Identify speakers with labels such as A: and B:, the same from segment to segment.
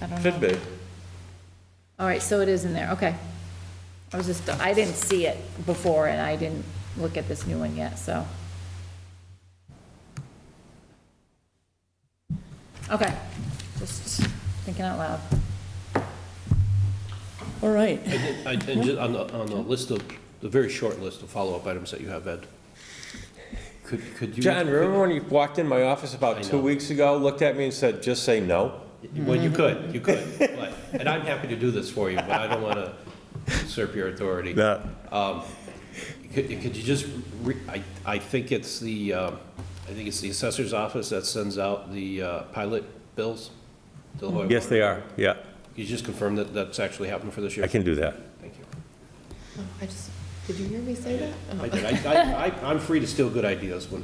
A: I don't know.
B: Should be.
A: All right, so it is in there, okay. I was just, I didn't see it before, and I didn't look at this new one yet, so. Okay, just thinking out loud.
C: All right.
D: I- And ju- on the, on the list of, the very short list of follow-up items that you have, Ed, could, could you?
B: John, remember when you walked in my office
D: I
B: about two
D: know.
B: weeks ago, looked at me and said, just say no?
D: Well, you could, you could, but- and I'm happy to do this for you, but I don't want to usurp your authority.
B: No.
D: Um, Could, could you just, re- I, I think it's the, um, I think it's the assessor's office that sends out the uh, pilot bills? to Lehigh
B: Yes,
D: Water.
B: they are, yeah.
D: Could you just confirm that that's actually happened for this year?
B: I can do that.
D: Thank you.
E: Oh, I just, did you hear me say that? Oh.
D: I did. I, I- I, I'm free to steal good ideas when,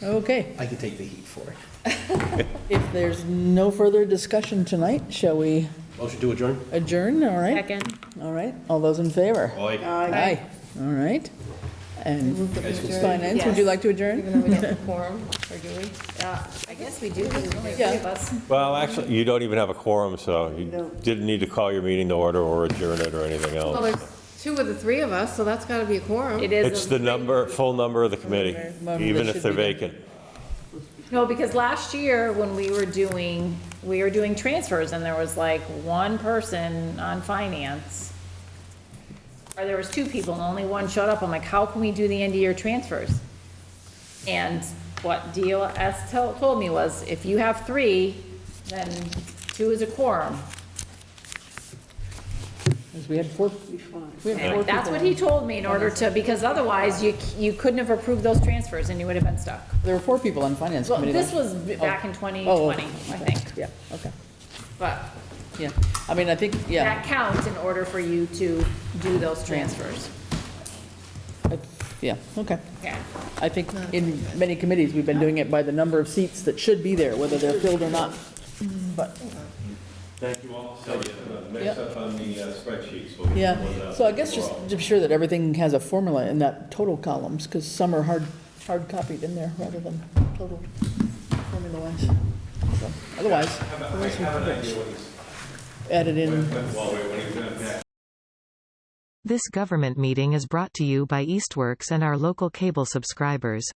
C: Okay.
D: I can take the heat for it.
C: If there's no further discussion tonight, shall we
D: Motion to adjourn?
C: adjourn? All right?
A: Second.
C: All right. All those in favor?
D: Aye.
C: Aye. All right. And finance, would you
E: Yes.
C: like to adjourn?
E: Even though we don't perform, or do we?
A: I guess we do, there's only
C: three of
A: us.
B: Well, actually, you don't even have a quorum, so you didn't need to call your meeting to order or adjourn it or anything
E: Well,
B: else.
E: there's two of the three of us, so that's gotta be a quorum.
A: It
B: It's
A: is,
B: the number, full number of the committee,
C: Number
B: even
C: that
B: if they're
C: should be done.
B: vacant.
A: no, because last year, when we were doing, we were doing transfers, and there was like one person on finance, or there was two people, and only one showed up, I'm like, how can we do the end-of-year transfers? And what DOS tell- told me was, if you have three, then two is a quorum.
C: 'Cause We had four, we had four
A: And That's what
C: people.
A: he told me in order to, because otherwise, you, c- you couldn't have approved those transfers, and you would have been stuck.
C: There were four people on finance
A: Well,
C: committee.
A: this was
C: last-
A: b- back in
C: Oh,
A: 2020, I think,
C: Yeah, okay.
A: but
C: Yeah. I mean, I think, yeah,
A: that counts in order for you to do those transfers.
C: I- yeah, okay.
A: Yeah.
C: I think in many committees, we've been doing it by the number of seats that should be there, whether they're filled or not. But,
B: Thank you all. Next
C: Yep.
B: up on the uh, spreadsheets. uh,
C: yeah, so I guess just to be sure that everything has a formula in that total columns, because some are hard, hard copied in there rather than total formula-wise. So, Otherwise, added in.
F: This government meeting is brought to you by Eastworks and our local cable subscribers.